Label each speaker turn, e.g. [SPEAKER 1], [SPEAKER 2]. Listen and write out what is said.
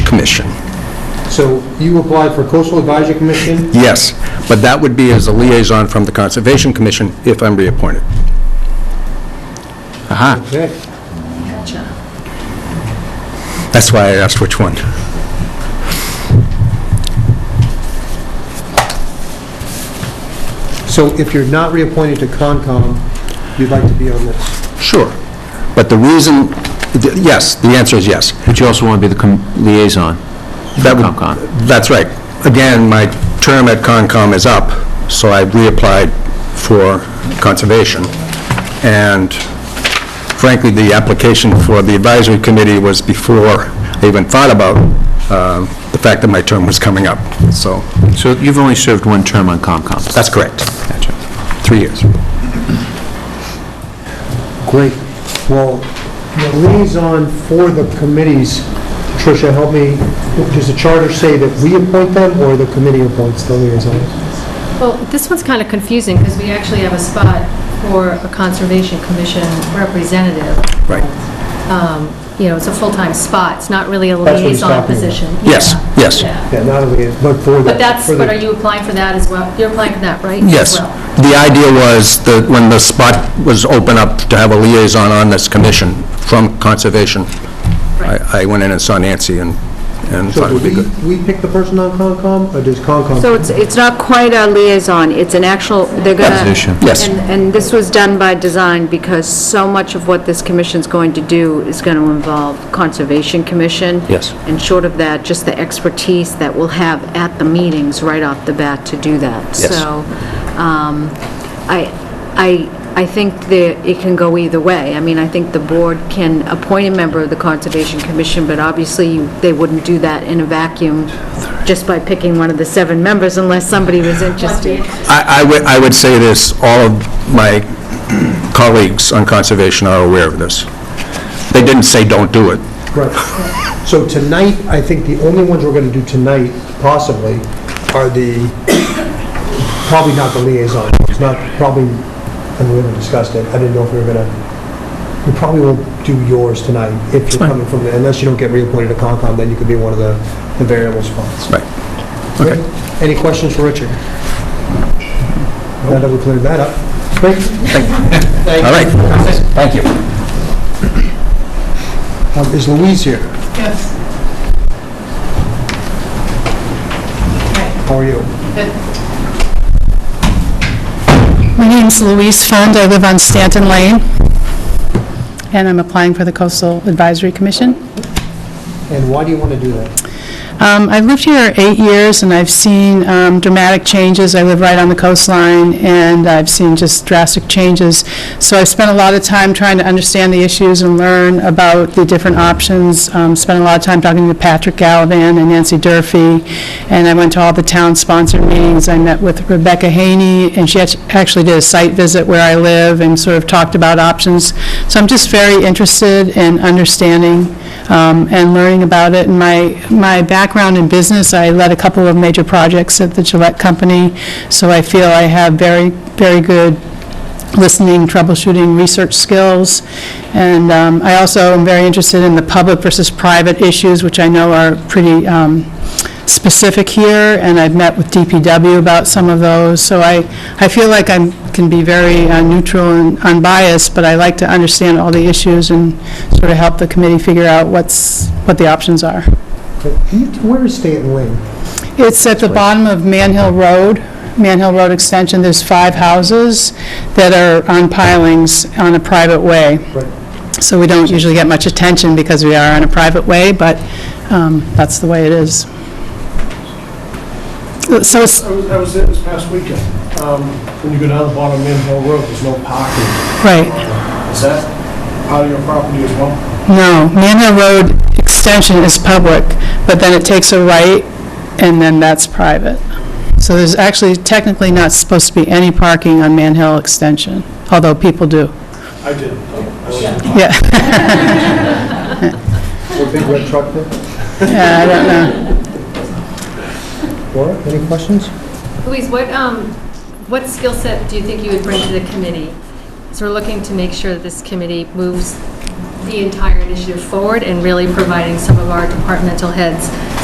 [SPEAKER 1] Commission.
[SPEAKER 2] So you applied for Coastal Advisory Commission?
[SPEAKER 1] Yes, but that would be as a liaison from the Conservation Commission if I'm reappointed. Aha,
[SPEAKER 2] Okay.
[SPEAKER 1] that's why I asked which one.
[SPEAKER 2] So if you're not reappointed to Concom, you'd like to be on this?
[SPEAKER 1] Sure. But the reason, th- yes, the answer is yes.
[SPEAKER 3] But you also want to be the com- liaison.
[SPEAKER 1] That would-
[SPEAKER 3] Concom.
[SPEAKER 1] That's right. Again, my term at Concom is up, so I reapplied for Conservation. And frankly, the application for the Advisory Committee was before I even thought about uh, the fact that my term was coming up. So
[SPEAKER 3] So you've only served one term on Concom.
[SPEAKER 1] that's correct. Three years.
[SPEAKER 2] Great. Well, the liaison for the committees, Tricia, help me, does the charter say that we appoint them or the committee appoints the liaisons?
[SPEAKER 4] Well, this one's kind of confusing because we actually have a spot for a Conservation Commission representative.
[SPEAKER 1] Right.
[SPEAKER 4] Um, You know, it's a full-time spot, it's not really a
[SPEAKER 2] That's what he's
[SPEAKER 4] liaison
[SPEAKER 2] talking about.
[SPEAKER 4] position.
[SPEAKER 1] Yes,
[SPEAKER 4] Yeah,
[SPEAKER 1] yes.
[SPEAKER 4] yeah.
[SPEAKER 2] Yeah, not a liaison, but for the...
[SPEAKER 4] But that's,
[SPEAKER 2] for the-
[SPEAKER 4] but are you applying for that as well? You're applying for that, right? as
[SPEAKER 1] Yes.
[SPEAKER 4] well?
[SPEAKER 1] The idea was that when the spot was open up to have a liaison on this commission from Conservation,
[SPEAKER 4] Right.
[SPEAKER 1] I I went in and saw Nancy and and
[SPEAKER 2] So
[SPEAKER 1] thought it would be
[SPEAKER 2] do
[SPEAKER 1] good.
[SPEAKER 2] we, we pick the person on Concom or does Concom?
[SPEAKER 5] So it's, it's not quite a liaison, it's an actual, they're gonna...
[SPEAKER 3] Position.
[SPEAKER 1] Yes.
[SPEAKER 5] And, and this was done by design because so much of what this commission's going to do is gonna involve Conservation Commission.
[SPEAKER 1] Yes.
[SPEAKER 5] And short of that, just the expertise that we'll have at the meetings right off the bat to do that.
[SPEAKER 1] Yes.
[SPEAKER 5] So, um, I, I, I think that it can go either way. I mean, I think the board can appoint a member of the Conservation Commission, but obviously, they wouldn't do that in a vacuum just by picking one of the seven members unless somebody was interested.
[SPEAKER 1] I I would I would say this, all of my colleagues on Conservation are aware of this. They didn't say, "Don't do it."
[SPEAKER 2] Right. So tonight, I think the only ones we're going to do tonight, possibly, are the, probably not the liaison. It's not, probably, and we haven't discussed it. I didn't know if we were going to, we probably won't do yours tonight if you're coming from, the- unless you don't get reappointed to Concom, then you could be one of the the variable spots.
[SPEAKER 1] Right. Okay.
[SPEAKER 2] Any questions for Richard? Now that we cleared that up. Great. Thank you.
[SPEAKER 1] All right. Thank you.
[SPEAKER 2] Um, Is Louise here?
[SPEAKER 6] Yes. Hi,
[SPEAKER 2] How are you?
[SPEAKER 6] good. My name's Louise Fund, I live on Stanton Lane, and I'm applying for the Coastal Advisory Commission.
[SPEAKER 2] And why do you want to do that?
[SPEAKER 6] Um, I've lived here eight years, and I've seen um, dramatic changes. I live right on the coastline, and I've seen just drastic changes. So I've spent a lot of time trying to understand the issues and learn about the different options. Um, Spent a lot of time talking to Patrick Gallivan and Nancy Durfee, and I went to all the town-sponsored meetings. I met with Rebecca Haney, and she act- actually did a site visit where I live and sort of talked about options. So I'm just very interested in understanding um, and learning about it. And my, my background in business, I led a couple of major projects at the Gillette Company, so I feel I have very, very good listening, troubleshooting, research skills. And um, I also am very interested in the public versus private issues, which I know are pretty um, specific here, and I've met with DPW about some of those. So I, I feel like I can be very uh, neutral and unbiased, but I like to understand all the issues and sort of help the committee figure out what's, what the options are.
[SPEAKER 2] Do you- Where is Stanton Lane?
[SPEAKER 6] It's at the bottom of Man Hill Road, Man Hill Road Extension. There's five houses that are on pilings on a private way.
[SPEAKER 2] Right.
[SPEAKER 6] So we don't usually get much attention because we are on a private way, but um, that's the way it is. So it's,
[SPEAKER 7] I was, I was there this past weekend. Um, When you go down the bottom of Man Hill Road, there's no parking.
[SPEAKER 6] right,
[SPEAKER 7] Is that part of your property as well?
[SPEAKER 6] no, Man Hill Road Extension is public, but then it takes a right, and then that's private. So there's actually technically not supposed to be any parking on Man Hill Extension, although people do.
[SPEAKER 7] I did. I was there.
[SPEAKER 6] Yeah.
[SPEAKER 2] Or big red truck there?
[SPEAKER 6] Yeah, I don't know.
[SPEAKER 2] Laura, any questions?
[SPEAKER 4] Louise, what, um, what skill set do you think you would bring to the committee? So we're looking to make sure that this committee moves the entire initiative forward and really providing some of our departmental heads